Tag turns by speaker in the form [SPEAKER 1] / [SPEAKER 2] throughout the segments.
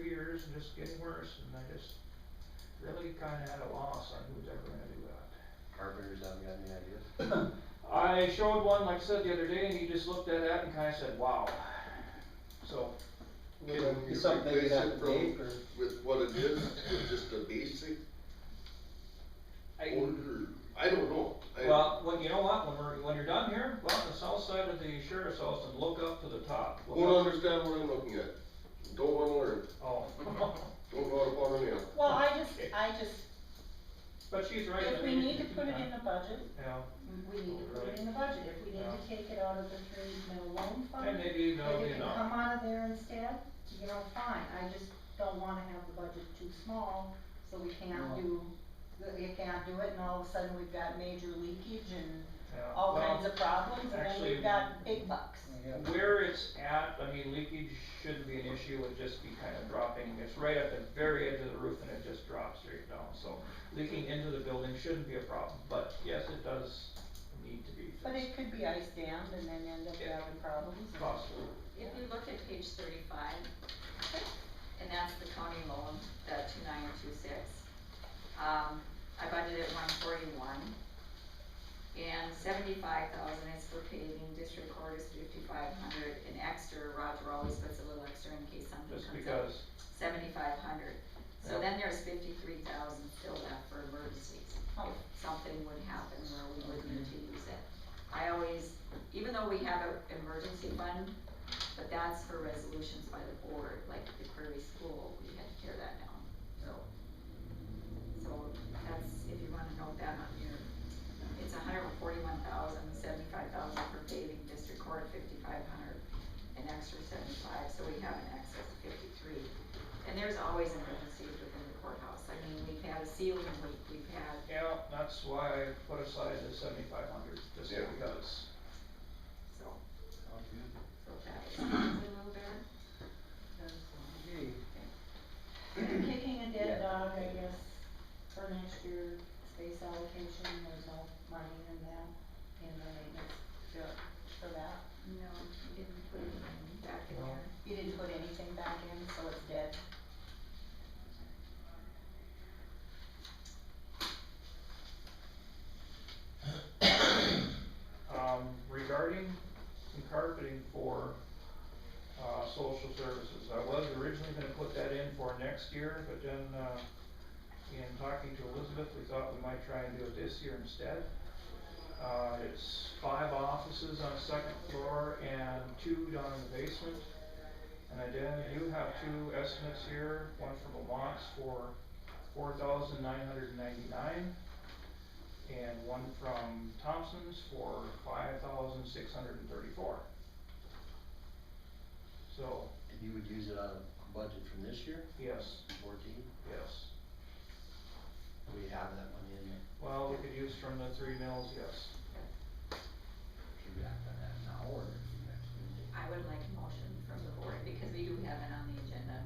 [SPEAKER 1] years and just getting worse, and I just really kinda at a loss on who's ever gonna do that.
[SPEAKER 2] Carpenters haven't got any ideas?
[SPEAKER 1] I showed one, like I said the other day, and he just looked at that and kinda said, wow. So,
[SPEAKER 3] Can you
[SPEAKER 4] It's something
[SPEAKER 3] replace
[SPEAKER 4] that
[SPEAKER 3] it from-
[SPEAKER 4] Dave or-
[SPEAKER 3] With what it is, with just a basic
[SPEAKER 1] I,
[SPEAKER 3] order, I don't know. I-
[SPEAKER 1] well, when, you know what, when we're, when you're done here, go out on the south side of the sheriff's house and look up to the top. Look
[SPEAKER 3] Don't
[SPEAKER 1] up-
[SPEAKER 3] understand what I'm looking at, don't wanna learn,
[SPEAKER 1] Oh,
[SPEAKER 3] don't go out upon a nail.
[SPEAKER 5] Well, I just, I just,
[SPEAKER 1] but she's right.
[SPEAKER 5] if
[SPEAKER 1] I
[SPEAKER 5] we
[SPEAKER 1] mean,
[SPEAKER 5] need to put it in the budget,
[SPEAKER 1] Yeah,
[SPEAKER 5] we need to put it in the budget, if we need to take it out of the three mill loan
[SPEAKER 1] and
[SPEAKER 5] fund,
[SPEAKER 1] maybe that'll
[SPEAKER 5] if
[SPEAKER 1] be
[SPEAKER 5] it can
[SPEAKER 1] enough.
[SPEAKER 5] come out of there instead, you know, fine, I just don't wanna have the budget too small, so we can't
[SPEAKER 4] No.
[SPEAKER 5] do, we can't do it, and all of a sudden we've got major leakage and
[SPEAKER 1] Yeah,
[SPEAKER 5] all
[SPEAKER 1] well-
[SPEAKER 5] kinds of problems, and then
[SPEAKER 1] actually- mm.
[SPEAKER 5] we've got big bucks.
[SPEAKER 4] Yeah.
[SPEAKER 1] Where it's at, I mean, leakage shouldn't be an issue, it'd just be kind of dropping, it's right at the very edge of the roof and it just drops straight down, so leaking into the building shouldn't be a problem, but yes, it does need to be
[SPEAKER 5] But
[SPEAKER 1] fixed,
[SPEAKER 5] it could be ice dammed and then end up
[SPEAKER 1] Yeah.
[SPEAKER 5] having problems.
[SPEAKER 1] possibly.
[SPEAKER 6] If you look at page thirty-five, and that's the county loan, the two nine two six, um, I budgeted one forty-one. And seventy-five thousand is for paving, district court is fifty-five hundred, and extra, Roger always puts a little extra in case something
[SPEAKER 1] Just
[SPEAKER 6] comes up,
[SPEAKER 1] because,
[SPEAKER 6] seventy-five hundred.
[SPEAKER 1] Yeah.
[SPEAKER 6] So then there's fifty-three thousand still left for emergencies,
[SPEAKER 5] Oh.
[SPEAKER 6] if something would happen where we would need to use it. I always, even though we have an emergency fund, but that's for resolutions by the board, like the Prairie School, we had to tear that down, so. So that's, if you wanna note that on your, it's a hundred and forty-one thousand, seventy-five thousand for paving, district court fifty-five hundred, an extra seventy-five, so we have an excess of fifty-three. And there's always emergencies within the courthouse, I mean, we've had a ceiling leak, we've had
[SPEAKER 1] yeah, that's why I put aside the seventy-five hundred, just
[SPEAKER 3] Yeah.
[SPEAKER 1] because.
[SPEAKER 6] So. So that is a little bit.
[SPEAKER 5] Kicking a dead dog, I guess, for next year, space allocation, there's no money in that, in the maintenance bill for that.
[SPEAKER 6] No, you didn't put it in back in there.
[SPEAKER 5] You didn't put anything back in, so it's dead.
[SPEAKER 1] Um, regarding some carpeting for, uh, social services, I was originally gonna put that in for next year, but then, uh, in talking to Elizabeth, we thought we might try and do it this year instead. Uh, it's five offices on the second floor and two down in the basement. And I did, you have two estimates here, one from Lamont's for four thousand nine hundred and ninety-nine and one from Thompson's for five thousand six hundred and thirty-four. So,
[SPEAKER 2] And you would use it on a budget from this year,
[SPEAKER 1] yes,
[SPEAKER 2] fourteen?
[SPEAKER 1] yes.
[SPEAKER 2] We have that money in there.
[SPEAKER 1] Well, we could use from the three mills, yes.
[SPEAKER 2] Should we act on that now or next meeting?
[SPEAKER 6] I would like a motion from the board because we do have it on the agenda.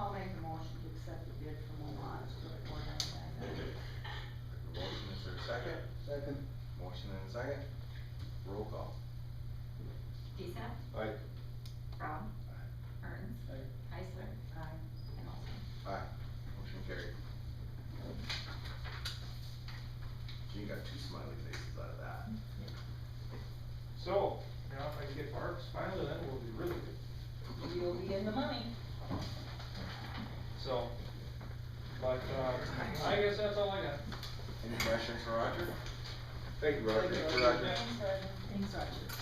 [SPEAKER 5] I'll make a motion to accept the bid from Alon's for the four hundred thousand.
[SPEAKER 7] Motion is there a second?
[SPEAKER 4] Second.
[SPEAKER 7] Motion and a second. Roll call.
[SPEAKER 6] Decep?
[SPEAKER 3] Aye.
[SPEAKER 6] Brown? Mertens? Heisler?
[SPEAKER 5] Aye.
[SPEAKER 6] And Olson?
[SPEAKER 7] Aye. Motion carried. You got two smiley faces out of that.
[SPEAKER 1] So, now if I can get Mark's finally, then we'll be really good.
[SPEAKER 5] You'll be in the money.
[SPEAKER 1] So, but, uh, I guess that's all I got.
[SPEAKER 7] Any questions for Roger?
[SPEAKER 3] Thank you, Roger.
[SPEAKER 7] Thank you, Roger.
[SPEAKER 5] Thanks, Roger.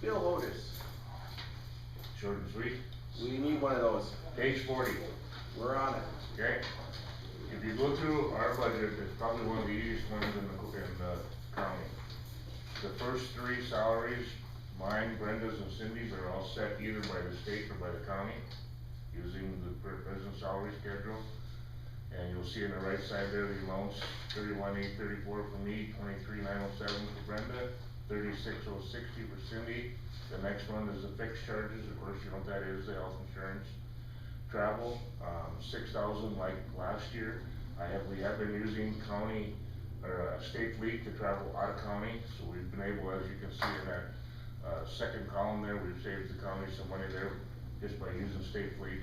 [SPEAKER 7] Bill Otis,
[SPEAKER 8] Short and sweet.
[SPEAKER 7] we need one of those.
[SPEAKER 8] Page forty,
[SPEAKER 7] We're on it.
[SPEAKER 8] okay? If you go through our budget, it's probably one of the easiest ones in the, in the county. The first three salaries, mine, Brenda's and Cindy's are all set either by the state or by the county, using the pre- present salary schedule. And you'll see on the right side there, the amounts, thirty-one eight thirty-four for me, twenty-three nine oh seven for Brenda, thirty-six oh sixty for Cindy. The next one is the fixed charges, of course, you know what that is, the health insurance. Travel, um, six thousand like last year. I have, we have been using county, or uh, state fleet to travel out of county, so we've been able, as you can see in that, uh, second column there, we've saved the county some money there just by using state fleet.